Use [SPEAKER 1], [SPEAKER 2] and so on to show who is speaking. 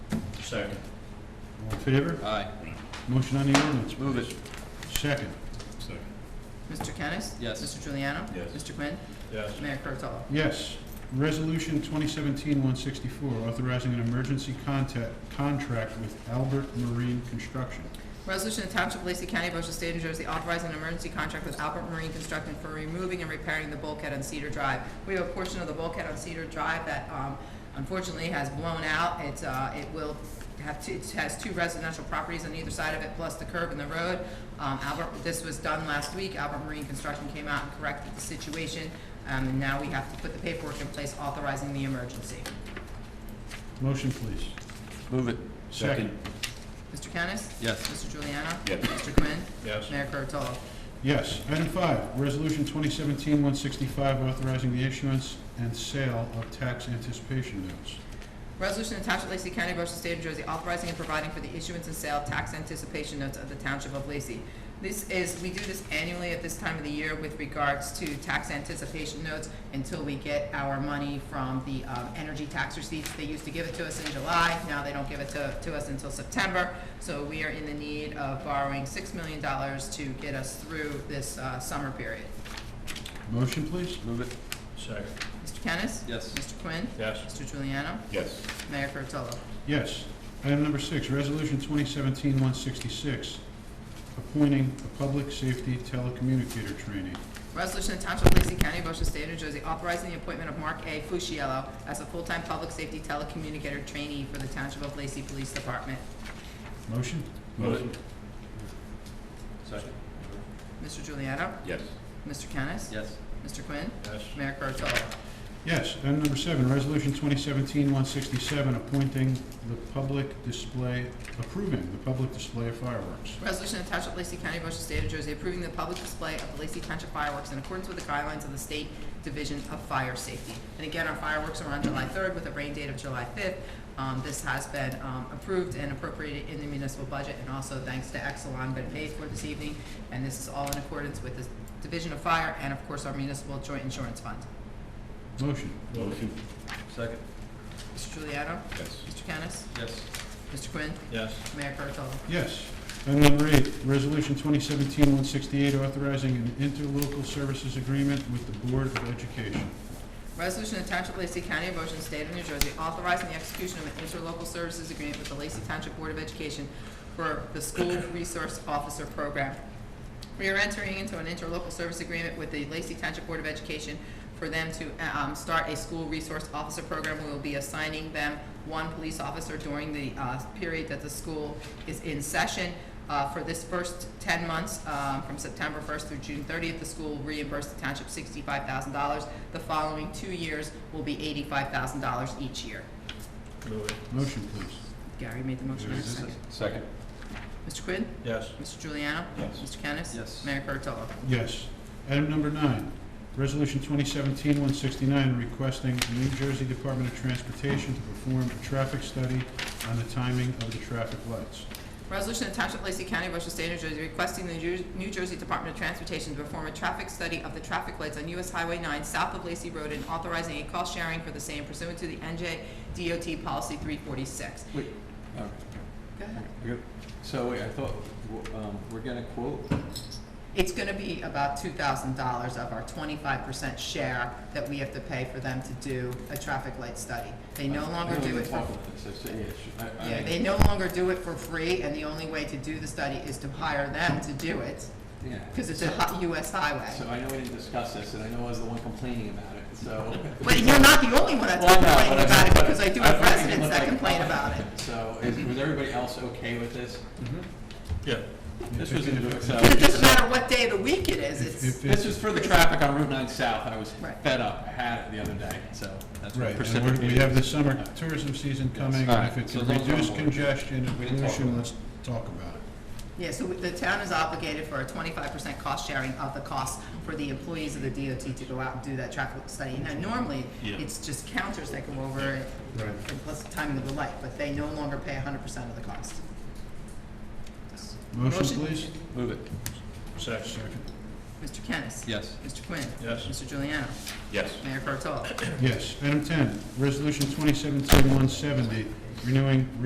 [SPEAKER 1] Second.
[SPEAKER 2] All in favor?
[SPEAKER 3] Aye.
[SPEAKER 2] Motion on the ordinance.
[SPEAKER 3] Move it.
[SPEAKER 2] Second.
[SPEAKER 1] Second.
[SPEAKER 4] Mr. Kennis?
[SPEAKER 3] Yes.
[SPEAKER 4] Mr. Juliano?
[SPEAKER 1] Yes.
[SPEAKER 4] Mr. Quinn?
[SPEAKER 1] Yes.
[SPEAKER 4] Mayor Kurtolo?
[SPEAKER 2] Yes. Resolution 2017-164, authorizing an emergency contact, contract with Albert Marine Construction.
[SPEAKER 4] Resolution to Township of Lacey County, Ocean State, New Jersey, authorizing an emergency contract with Albert Marine Construction for removing and repairing the bulkhead on Cedar Drive. We have a portion of the bulkhead on Cedar Drive that um, unfortunately has blown out. It's, uh, it will have, two- it has two residential properties on either side of it, plus the curb and the road. Um, Albert, this was done last week. Albert Marine Construction came out and corrected the situation. Um, And now we have to put the paperwork in place authorizing the emergency.
[SPEAKER 2] Motion, please.
[SPEAKER 3] Move it.
[SPEAKER 1] Second.
[SPEAKER 4] Mr. Kennis?
[SPEAKER 3] Yes.
[SPEAKER 4] Mr. Juliano?
[SPEAKER 1] Yes.
[SPEAKER 4] Mr. Quinn?
[SPEAKER 1] Yes.
[SPEAKER 4] Mayor Kurtolo?
[SPEAKER 2] Yes. Item five, Resolution 2017-165, authorizing the issuance and sale of tax anticipation notes.
[SPEAKER 4] Resolution to Township of Lacey County, Ocean State, New Jersey, authorizing and providing for the issuance and sale of tax anticipation notes of the Township of Lacey. This is, we do this annually at this time of the year with regards to tax anticipation notes until we get our money from the um, energy tax receipts. They used to give it to us in July, now they don't give it to, to us until September. So we are in the need of borrowing $6 million to get us through this uh, summer period.
[SPEAKER 2] Motion, please.
[SPEAKER 3] Move it.
[SPEAKER 1] Second.
[SPEAKER 4] Mr. Kennis?
[SPEAKER 3] Yes.
[SPEAKER 4] Mr. Quinn?
[SPEAKER 1] Yes.
[SPEAKER 4] Mr. Juliano?
[SPEAKER 1] Yes.
[SPEAKER 4] Mayor Kurtolo?
[SPEAKER 2] Yes. Item number six, Resolution 2017-166, appointing a public safety telecommunicator trainee.
[SPEAKER 4] Resolution to Township of Lacey County, Ocean State, New Jersey, authorizing the appointment of Mark A. Fusciello as a full-time public safety telecommunicator trainee for the Township of Lacey Police Department.
[SPEAKER 2] Motion?
[SPEAKER 1] Move it.
[SPEAKER 3] Second.
[SPEAKER 4] Mr. Juliano?
[SPEAKER 1] Yes.
[SPEAKER 4] Mr. Kennis?
[SPEAKER 3] Yes.
[SPEAKER 4] Mr. Quinn?
[SPEAKER 1] Yes.
[SPEAKER 4] Mayor Kurtolo?
[SPEAKER 2] Yes. Item number seven, Resolution 2017-167, appointing the public display, approving the public display of fireworks.
[SPEAKER 4] Resolution to Township of Lacey County, Ocean State, New Jersey, approving the public display of the Lacey Township fireworks in accordance with the guidelines of the State Division of Fire Safety. And again, our fireworks are on July 3rd with a rain date of July 5th. Um, This has been um, approved and appropriated in the municipal budget, and also thanks to Exelon, been paid for this evening. And this is all in accordance with the Division of Fire and, of course, our municipal joint insurance fund.
[SPEAKER 2] Motion?
[SPEAKER 1] Move it.
[SPEAKER 3] Second.
[SPEAKER 4] Mr. Juliano?
[SPEAKER 1] Yes.
[SPEAKER 4] Mr. Kennis?
[SPEAKER 3] Yes.
[SPEAKER 4] Mr. Quinn?
[SPEAKER 1] Yes.
[SPEAKER 4] Mayor Kurtolo?
[SPEAKER 2] Yes. Item number eight, Resolution 2017-168, authorizing an interlocal services agreement with the Board of Education.
[SPEAKER 4] Resolution of Township of Lacey County, Ocean State of New Jersey, authorizing the execution of an interlocal services agreement with the Lacey Township Board of Education for the School Resource Officer Program. We are entering into an interlocal service agreement with the Lacey Township Board of Education for them to uh, um, start a school resource officer program. We will be assigning them one police officer during the uh, period that the school is in session. Uh, For this first 10 months, uh, from September 1st through June 30th, the school will reimburse the township $65,000. The following two years will be $85,000 each year.
[SPEAKER 1] Move it.
[SPEAKER 2] Motion, please.
[SPEAKER 4] Gary made the motion, I have a second.
[SPEAKER 3] Second.
[SPEAKER 4] Mr. Quinn?
[SPEAKER 1] Yes.
[SPEAKER 4] Mr. Juliano?
[SPEAKER 1] Yes.
[SPEAKER 4] Mr. Kennis?
[SPEAKER 3] Yes.
[SPEAKER 4] Mayor Kurtolo?
[SPEAKER 2] Yes. Item number nine, Resolution 2017-169, requesting the New Jersey Department of Transportation to perform a traffic study on the timing of the traffic lights.
[SPEAKER 4] Resolution of Township of Lacey County, Ocean State, New Jersey, requesting the Ju- New Jersey Department of Transportation to perform a traffic study of the traffic lights on US Highway 9 south of Lacey Road and authorizing a cost sharing for the same pursuant to the NJ DOT Policy 346.
[SPEAKER 5] Wait, all right.
[SPEAKER 4] Go ahead.
[SPEAKER 5] Okay. So wait, I thought, w- um, we're gonna quote,
[SPEAKER 4] It's going to be about $2,000 of our 25% share that we have to pay for them to do a traffic light study. They no longer do it for,
[SPEAKER 5] I don't even talk about this, I said, yeah, sure. I, I.
[SPEAKER 4] yeah, they no longer do it for free, and the only way to do the study is to hire them to do it,
[SPEAKER 5] yeah.
[SPEAKER 4] because it's a hi- US highway.
[SPEAKER 5] So I know we didn't discuss this, and I know I was the one complaining about it, so.
[SPEAKER 4] But you're not the only one that's
[SPEAKER 5] Well, I know,
[SPEAKER 4] complaining
[SPEAKER 5] but I
[SPEAKER 4] about it,
[SPEAKER 5] mean,
[SPEAKER 4] because I do
[SPEAKER 5] I
[SPEAKER 4] have
[SPEAKER 5] thought we
[SPEAKER 4] residents
[SPEAKER 5] looked
[SPEAKER 4] that
[SPEAKER 5] like-
[SPEAKER 4] complain about it.
[SPEAKER 5] So, is, was everybody else okay with this?
[SPEAKER 1] Yeah.
[SPEAKER 5] This was, in- so,
[SPEAKER 4] Because it doesn't matter what day of the week it is,
[SPEAKER 2] If-
[SPEAKER 4] it's,
[SPEAKER 2] if
[SPEAKER 5] this
[SPEAKER 2] it's-
[SPEAKER 5] was for the traffic on Route nine South, I was
[SPEAKER 4] Right.
[SPEAKER 5] fed up, I had it the other day, so
[SPEAKER 2] Right,
[SPEAKER 5] that's what
[SPEAKER 2] and we're- we
[SPEAKER 5] precipitated.
[SPEAKER 2] have the summer tourism season coming,
[SPEAKER 5] All
[SPEAKER 2] and
[SPEAKER 5] right,
[SPEAKER 2] if it
[SPEAKER 5] so
[SPEAKER 2] can
[SPEAKER 5] those are
[SPEAKER 2] reduce
[SPEAKER 5] on board.
[SPEAKER 2] congestion and
[SPEAKER 5] We can talk
[SPEAKER 2] pollution,
[SPEAKER 5] about
[SPEAKER 2] let's talk about it.
[SPEAKER 4] yeah, so the town is obligated for a twenty-five percent cost sharing of the cost for the employees of the DOT to go out and do that traffic study. Now, normally,
[SPEAKER 1] Yeah.
[SPEAKER 4] it's just counters that go over it,
[SPEAKER 2] Right.
[SPEAKER 4] and plus the timing of the light, but they no longer pay hundred percent of the cost.
[SPEAKER 2] Motion, please?
[SPEAKER 5] Move it,
[SPEAKER 1] Second.
[SPEAKER 4] Mr. Kennis?
[SPEAKER 3] Yes.
[SPEAKER 4] Mr. Quinn?
[SPEAKER 1] Yes.
[SPEAKER 4] Mr. Juliano?
[SPEAKER 1] Yes.
[SPEAKER 4] Mayor Kurtolo?
[SPEAKER 2] Yes. Item ten, Resolution 2017-170, renewing